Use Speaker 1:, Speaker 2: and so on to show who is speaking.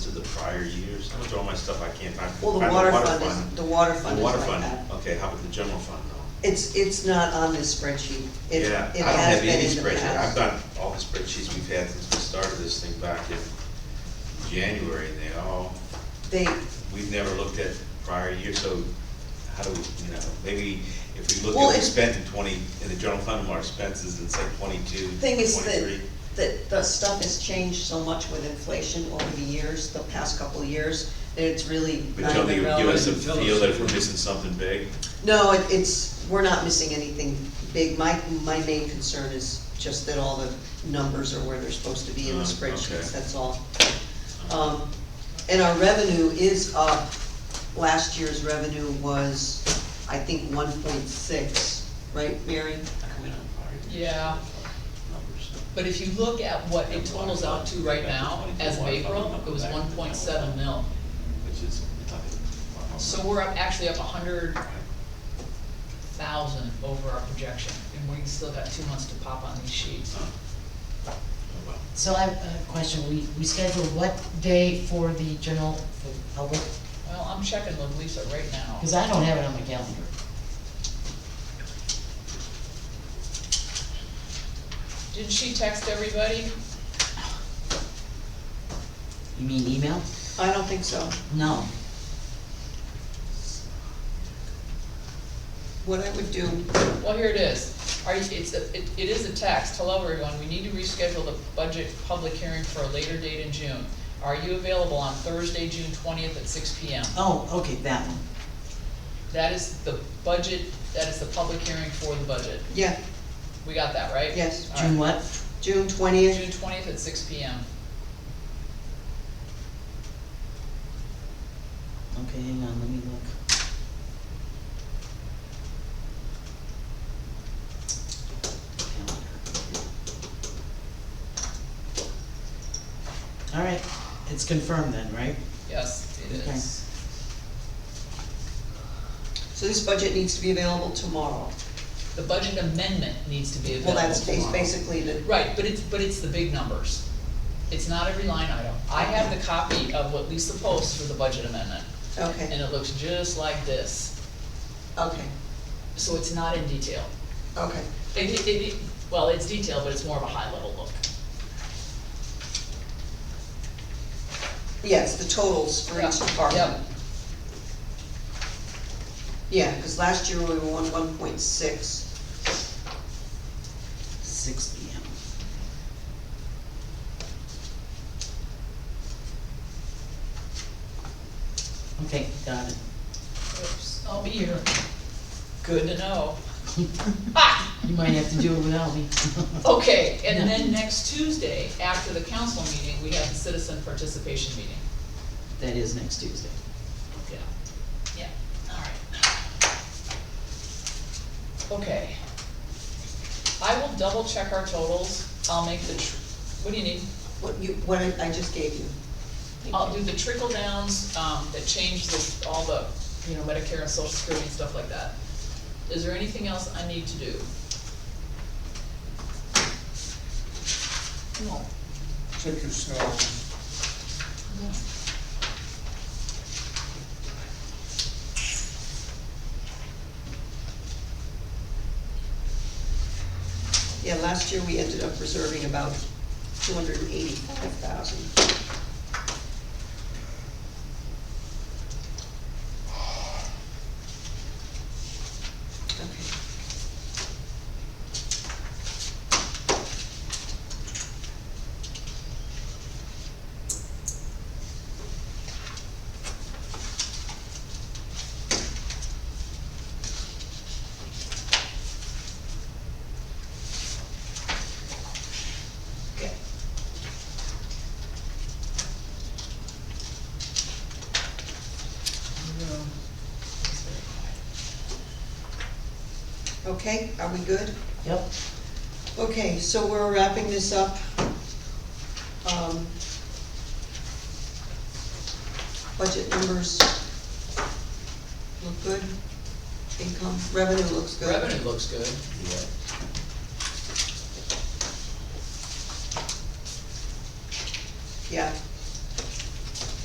Speaker 1: prior years? I don't all my stuff I can't find.
Speaker 2: Well, the
Speaker 1: Find
Speaker 2: water fund is, the water
Speaker 1: The
Speaker 2: fund is
Speaker 1: water
Speaker 2: like
Speaker 1: fund,
Speaker 2: that.
Speaker 1: okay, how about the general fund though?
Speaker 2: It's, it's not on this spreadsheet. It-
Speaker 1: Yeah, I
Speaker 2: it
Speaker 1: don't
Speaker 2: has
Speaker 1: have
Speaker 2: been
Speaker 1: any
Speaker 2: in the
Speaker 1: spreadsheet, I've
Speaker 2: past.
Speaker 1: done all the spreadsheets we've had since we started this thing back in January, and they all,
Speaker 2: They,
Speaker 1: we've never looked at prior years, so how do we, you know, maybe if we look at
Speaker 2: Well,
Speaker 1: what we
Speaker 2: it-
Speaker 1: spent in twenty, in the general fund, our expenses, it's like twenty-two,
Speaker 2: thing is
Speaker 1: twenty-three.
Speaker 2: that, that the stuff has changed so much with inflation over the years, the past couple of years, that it's really
Speaker 1: But
Speaker 2: not
Speaker 1: you don't think
Speaker 2: even
Speaker 1: it would give us a
Speaker 2: relevant.
Speaker 3: Tell us.
Speaker 1: feel that if we're missing something big?
Speaker 2: No, it- it's, we're not missing anything big. My, my main concern is just that all the numbers are where they're supposed to be in the
Speaker 1: Um,
Speaker 4: Mm,
Speaker 1: okay.
Speaker 2: spreadsheets, that's all. Um, and our revenue is up. Last year's revenue was, I think, one point six, right, Mary?
Speaker 4: Yeah, but if you look at what it totals out to right now, as of April, it was one point seven mil.
Speaker 1: Which is.
Speaker 4: So we're up, actually up a hundred thousand over our projection, and we still got two months to pop on these sheets.
Speaker 1: Oh,
Speaker 5: So I have a question, we, we scheduled what day for the general, for the public?
Speaker 4: Well, I'm checking with Lisa right now.
Speaker 5: Because I don't have it on my calendar.
Speaker 4: Did she text everybody?
Speaker 5: You mean email?
Speaker 2: I don't think so.
Speaker 5: No.
Speaker 2: What I would do,
Speaker 4: Well, here it is. Are you, it's, a- it, it is a text. Hello, everyone. We need to reschedule the budget public hearing for a later date in June. Are you available on Thursday, June twentieth at six P M?
Speaker 5: Oh, okay, that one.
Speaker 4: That is the budget, that is the public hearing for the budget.
Speaker 2: yeah,
Speaker 4: We got that, right?
Speaker 2: Yes.
Speaker 4: All right.
Speaker 5: June what?
Speaker 2: June twentieth,
Speaker 4: June twentieth at six P M.
Speaker 5: Okay, hang on, let me look. Calendar. All right, it's confirmed then, right?
Speaker 4: Yes, it
Speaker 5: Okay.
Speaker 4: is.
Speaker 2: so this budget needs to be available tomorrow.
Speaker 4: The budget amendment needs to be
Speaker 2: Well,
Speaker 4: available
Speaker 2: that's bas-
Speaker 4: tomorrow.
Speaker 2: basically the,
Speaker 4: Right, but it's, but it's the big numbers. It's not every line item. I have the copy of what Lisa posts for the budget amendment, and
Speaker 2: okay,
Speaker 4: it looks just like this.
Speaker 2: okay,
Speaker 4: So it's not in detail.
Speaker 2: okay.
Speaker 4: It, it, it, well, it's detailed, but it's more of a high-level look.
Speaker 2: Yes, the totals for each
Speaker 4: Yeah,
Speaker 2: department.
Speaker 4: yeah.
Speaker 2: Yeah, because last year we were on one point six.
Speaker 5: Six P M. Okay, got it.
Speaker 4: Oops, I'll be here. Good to know.
Speaker 5: You might have to do it without me.
Speaker 4: Okay, and then next Tuesday, after the council meeting, we have the citizen participation meeting.
Speaker 5: That is next Tuesday.
Speaker 4: Yeah, yeah, alright. Okay. I will double check our totals, I'll make the, tr- what do you need?
Speaker 2: What you, what I I just gave you.
Speaker 4: I'll do the trickle downs, um, that change the, all the, you know, Medicare and social security and stuff like that. Is there anything else I need to do? No.
Speaker 6: Check yourself.
Speaker 2: Yeah, last year we ended up reserving about two hundred and eighty-five thousand. Okay.
Speaker 4: Okay.
Speaker 2: Okay, are we good?
Speaker 5: Yep.
Speaker 2: Okay, so we're wrapping this up. Um, Budget numbers look good. Income, revenue looks good.
Speaker 4: Revenue looks good.
Speaker 2: Yeah,